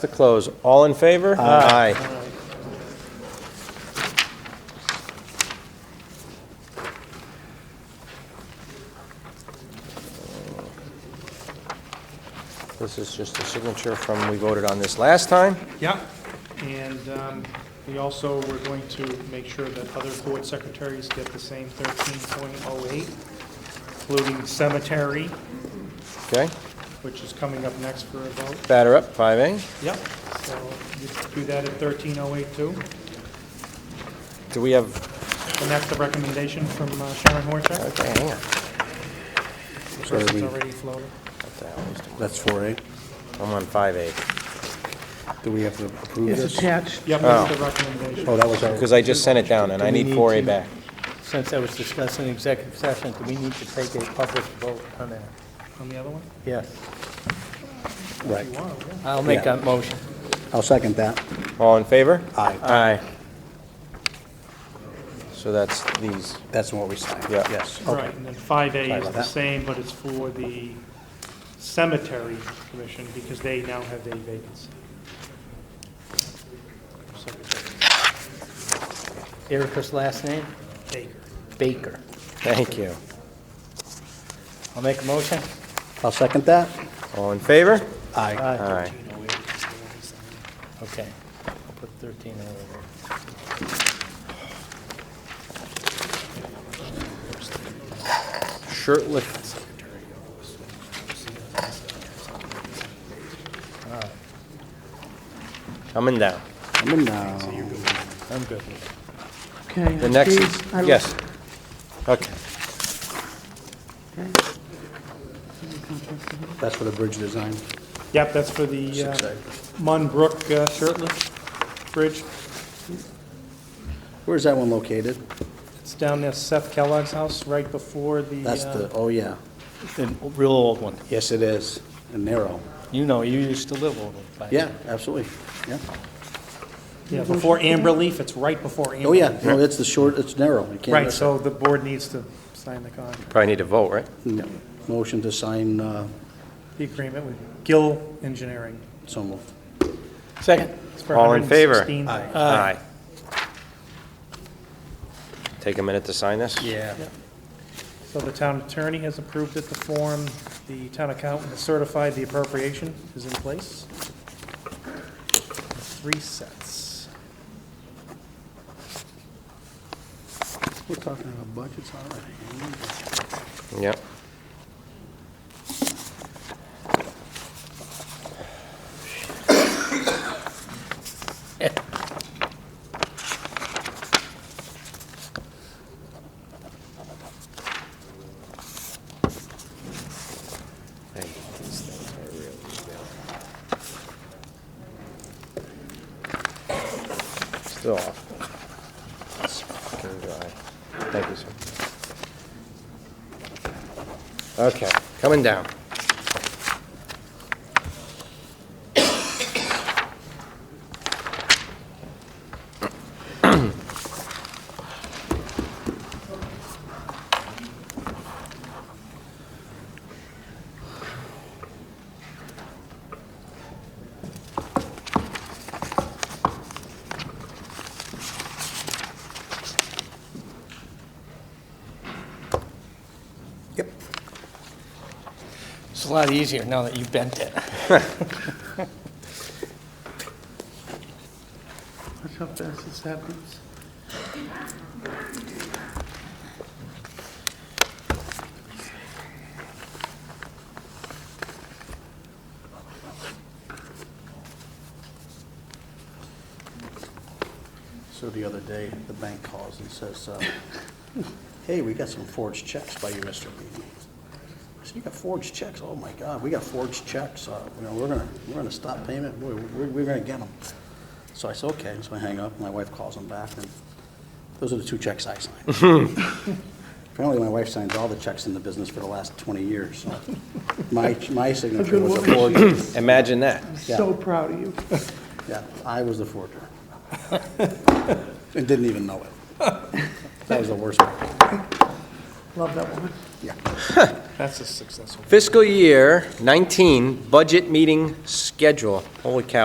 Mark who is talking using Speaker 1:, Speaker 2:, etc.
Speaker 1: To close, all in favor? Aye. This is just a signature from, we voted on this last time.
Speaker 2: Yeah, and um, we also, were going to make sure that other board secretaries get the same 13.08, including cemetery,
Speaker 1: Okay,
Speaker 2: which is coming up next for a vote.
Speaker 1: batter up, 5A.
Speaker 2: Yep. So you do that at 13.08 too.
Speaker 1: Do we have,
Speaker 2: And that's the recommendation from uh, Sharon Horchak.
Speaker 1: okay, hang on.
Speaker 2: So It's already floated.
Speaker 1: What the hell is-
Speaker 3: That's 4A.
Speaker 1: I'm on 5A,
Speaker 3: Do we have to approve
Speaker 4: It's
Speaker 3: this?
Speaker 4: attached,
Speaker 2: Yep, that's the recommendation.
Speaker 3: Oh, that was our,
Speaker 1: because I just sent it down, and I
Speaker 4: Do we
Speaker 1: need
Speaker 4: need
Speaker 1: 4A
Speaker 4: to-
Speaker 1: back.
Speaker 4: since I was discussing executive session, do we need to take a public vote on that?
Speaker 2: On the other one?
Speaker 4: Yes.
Speaker 3: right.
Speaker 2: You are, yeah.
Speaker 4: I'll make
Speaker 3: Yeah.
Speaker 4: that motion.
Speaker 3: I'll second that.
Speaker 1: All in favor?
Speaker 3: Aye.
Speaker 1: Aye. So that's these.
Speaker 3: That's what we signed.
Speaker 1: Yeah.
Speaker 3: Yes. Okay.
Speaker 2: Right, and then 5A
Speaker 3: Sorry
Speaker 2: is
Speaker 3: about
Speaker 2: the
Speaker 3: that.
Speaker 2: same, but it's for the cemetery commission, because they now have a vacancy. Secretary
Speaker 4: Erica's last name?
Speaker 2: Baker.
Speaker 4: Baker.
Speaker 1: Thank you.
Speaker 4: I'll make a motion?
Speaker 3: I'll second that.
Speaker 1: All in favor?
Speaker 3: Aye.
Speaker 4: Aye.
Speaker 1: Aye.
Speaker 4: Okay. I'll put 13 over there.
Speaker 1: Shirtless. Coming down.
Speaker 3: I'm in uh, now.
Speaker 4: I'm good with Okay.
Speaker 1: The next is, yes. Okay,
Speaker 3: That's for the bridge design.
Speaker 2: Yep, that's for the uh,
Speaker 3: Six A.
Speaker 2: Mun Brook uh, shirtless bridge.
Speaker 3: Where's that one located?
Speaker 2: It's down near Seth Kellogg's house, right before the,
Speaker 3: That's the,
Speaker 2: uh,
Speaker 3: oh, yeah.
Speaker 4: The real old one.
Speaker 3: Yes, it is. And narrow.
Speaker 4: You know, you used to live over by there.
Speaker 3: Yeah, absolutely. Yeah.
Speaker 2: yeah, before Amber Leaf, it's right before Amber.
Speaker 3: Oh, yeah.
Speaker 2: Leaf.
Speaker 3: No, it's the short, it's narrow. You can't
Speaker 2: Right,
Speaker 3: miss it.
Speaker 2: so the board needs to sign the contract,
Speaker 1: probably need to vote, right?
Speaker 3: No. Motion to sign, uh,
Speaker 2: the agreement with Gill Engineering.
Speaker 3: so moved.
Speaker 1: Second.
Speaker 2: It's for
Speaker 1: All in favor?
Speaker 2: $116.
Speaker 1: Aye. Take a minute to sign this?
Speaker 4: Yeah.
Speaker 2: So the town attorney has approved it, the form, the town accountant has certified the appropriation is in place. Three sets.
Speaker 3: We're talking about budgets already.
Speaker 1: Yep. Still off. It's fucking dry. Thank you, sir. Okay, coming down.
Speaker 4: It's a lot easier now that you bent it.
Speaker 2: Watch how fast this happens.
Speaker 3: So the other day, the bank calls and says, uh, hey, we got some forged checks by you, Mr. Beaton. I said, you got forged checks? Oh, my God, we got forged checks. Uh, You know, we're gonna, we're gonna stop payment. We're, we're we're gonna get them. So I said, okay, so I hang up. My wife calls them back, and those are the two checks I signed. Apparently, my wife signs all the checks in the business for the last 20 years, so my, my signature was a forger.
Speaker 1: Imagine that.
Speaker 3: So
Speaker 4: proud of you.
Speaker 3: Yeah, I was the forger. And didn't even know it. That was the worst one.
Speaker 4: Love that woman.
Speaker 3: Yeah.
Speaker 2: That's a successful.
Speaker 1: Fiscal year 19 budget meeting schedule. Holy cow.